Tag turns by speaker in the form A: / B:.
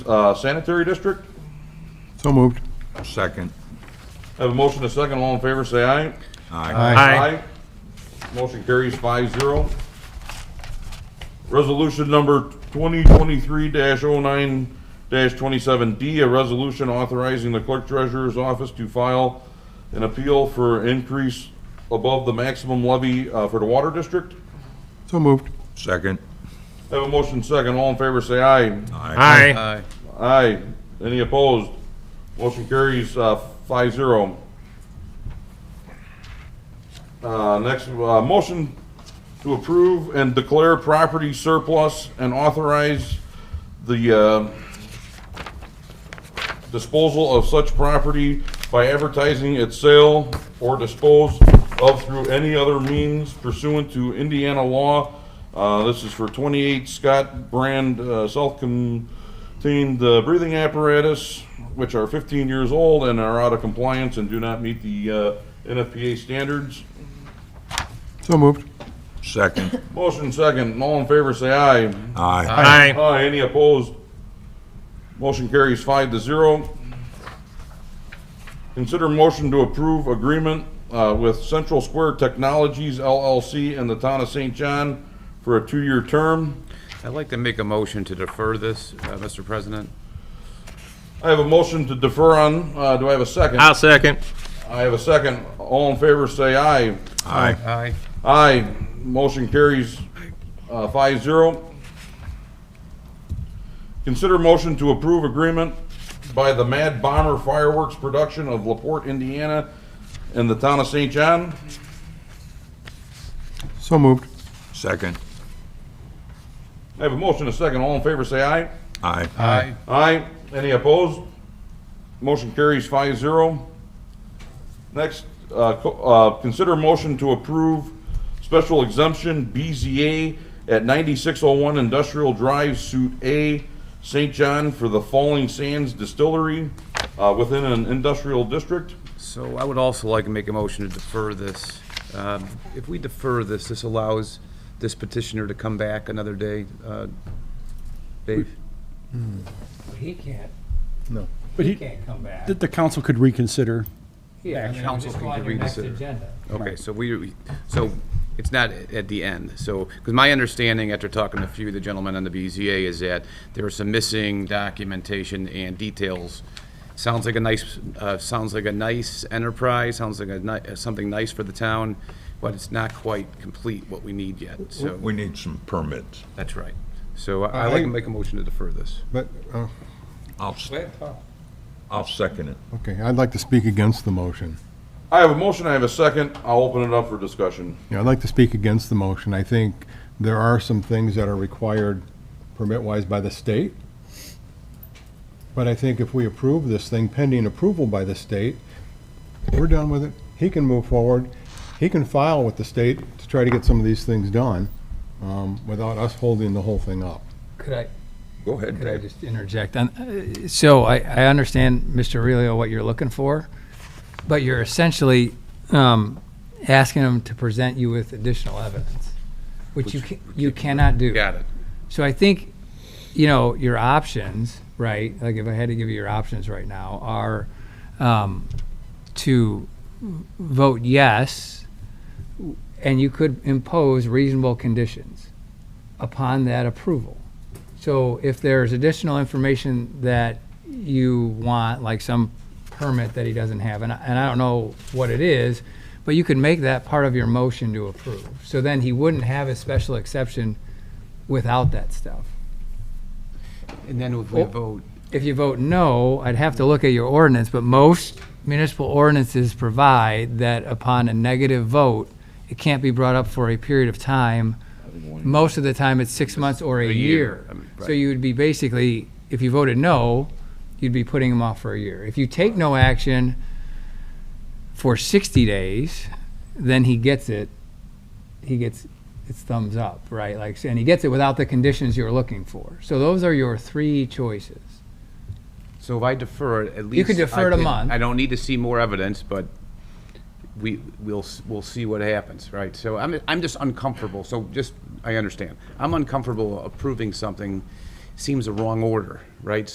A: uh, sanitary district.
B: So moved.
C: Second.
A: I have a motion to second, all in favor, say aye.
C: Aye.
A: Aye. Motion carries five zero. Resolution number 2023-09-27D, a resolution authorizing the clerk treasurer's office to file an appeal for increase above the maximum levy uh, for the water district.
B: So moved.
C: Second.
A: I have a motion second, all in favor, say aye.
D: Aye.
A: Aye. Any opposed? Motion carries uh, five zero. Uh, Next, uh, motion to approve and declare property surplus and authorize the uh, disposal of such property by advertising its sale or dispose of through any other means pursuant to Indiana law. Uh, This is for 28 Scott Brand uh, self-contained uh, breathing apparatus, which are 15 years old and are out of compliance and do not meet the uh, NFPA standards.
B: So moved.
C: Second.
A: Motion second, all in favor say aye.
C: Aye.
D: Aye.
A: Aye, any opposed? Motion carries five to zero. Consider motion to approve agreement uh, with Central Square Technologies LLC and the Town of St. John for a two-year term.
E: I'd like to make a motion to defer this, uh, Mr. President.
A: I have a motion to defer on, uh, do I have a second?
D: I'll second.
A: I have a second. All in favor, say aye.
C: Aye.
E: Aye.
A: Aye, motion carries uh, 5-0. Consider motion to approve agreement by the Mad Bomber Fireworks Production of LaPorte, Indiana, and the town of St. John.
B: So moved.
C: Second.
A: I have a motion, a second, all in favor, say aye.
C: Aye.
E: Aye.
A: Aye, any opposed? Motion carries 5-0. Next, uh, co- uh, consider motion to approve special exemption BZA at 9601 Industrial Drive, Suite A, St. John for the Falling Sands Distillery uh, within an industrial district.
E: So I would also like to make a motion to defer this. Um, If we defer this, this allows this petitioner to come back another day. uh, Dave?
F: He can't,
G: But
F: he
G: he,
F: can't come back.
G: the, the council could reconsider.
F: Yeah, I mean,
E: council
F: just
E: can
F: go on your next
E: reconsider.
F: agenda.
E: Okay, so we, we- so it's not at the end, so, because my understanding after talking to a few of the gentlemen on the BZA is that there was some missing documentation and details. Sounds like a nice, uh, sounds like a nice enterprise, sounds like a ni- uh, something nice for the town, but it's not quite complete what we need yet, so,
C: We need some permits.
E: that's right. So I- I'd like to make a motion to defer this.
B: But, uh,
C: I'll, s-
F: Oh.
C: I'll second it.
B: okay, I'd like to speak against the motion.
A: I have a motion, I have a second, I'll open it up for discussion.
B: Yeah, I'd like to speak against the motion. I think there are some things that are required permit-wise by the state. But I think if we approve this thing pending approval by the state, we're done with it. He can move forward. He can file with the state to try to get some of these things done, um, without us holding the whole thing up.
F: Could I,
C: Go ahead,
F: could I
C: Dave.
F: just interject? on- uh, So I, I understand, Mr. Aurelio, what you're looking for, but you're essentially um, asking them to present you with additional evidence, which you, ca- you cannot do.
E: Got it.
F: So I think, you know, your options, right? Like if I had to give you your options right now are um, to v- vote yes, and you could impose reasonable conditions upon that approval. So if there's additional information that you want, like some permit that he doesn't have, and I, and I don't know what it is, but you could make that part of your motion to approve. So then he wouldn't have a special exception without that stuff.
E: And then if we
F: Oh.
E: vote,
F: If you vote no, I'd have to look at your ordinance, but most municipal ordinances provide that upon a negative vote, it can't be brought up for a period of time. Most of the time, it's six months or a
E: A year,
F: year.
E: I mean, right.
F: So you would be basically, if you voted no, you'd be putting them off for a year. If you take no action for 60 days, then he gets it, he gets its thumbs up, right? Like, and he gets it without the conditions you're looking for. So those are your three choices.
E: so if I defer, it, at least.
F: could defer
E: I
F: it a
E: can-
F: month.
E: I don't need to see more evidence, but we, we'll, s- we'll see what happens, right? So I'm, I'm just uncomfortable, so just, I understand. I'm uncomfortable approving something, seems the wrong order, right?